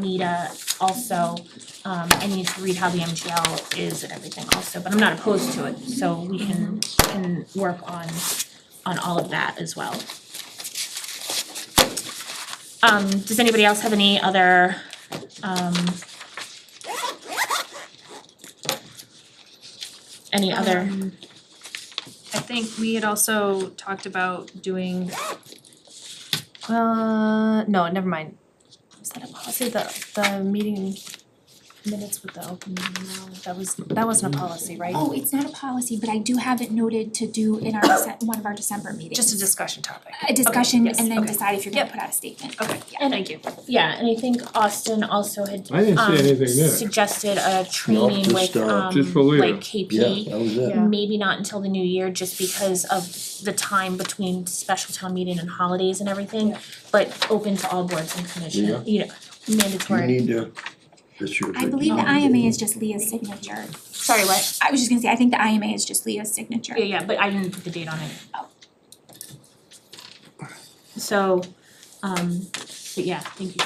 Anita also, um, I need to read how the MGL is and everything also, but I'm not opposed to it, so we can, can work on, on all of that as well. Um, does anybody else have any other, um, any other? Um, I think we had also talked about doing, uh, no, never mind. Was that a policy, the, the meeting minutes with the open, meeting law? that was, that wasn't a policy, right? Oh, it's not a policy, but I do have it noted to do in our, Dece- one of our December meetings. Just a discussion topic. A discussion yes, and then okay. decide if you're gonna Yep. put out a statement. Okay, Yeah. And- thank you. Yeah, and I think Austin also had I didn't um see anything there. suggested a training just, with uh, um just for later. like Yeah, KP. that was it. Yeah. Maybe not until the new year, just because of the time between special town meeting and holidays and everything, Yeah. but open to all boards and commissions, you know, You mandatory. need to, this year. I believe the IMA is just Leah's signature. Sorry, what? I was just gonna say, I think the IMA is just Leah's signature. Yeah, yeah, but I didn't put the date on it. Oh. So, um, but yeah, thank you.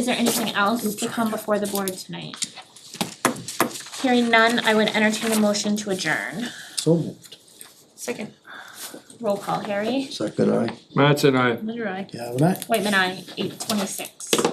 Is there anything else to come before the board tonight? Hearing none, I would entertain a motion to adjourn. So moved. Second. Roll call, Harry. Second, I, Matt's and I. Literal. yeah, when I, Whitman, I, eight twenty-six.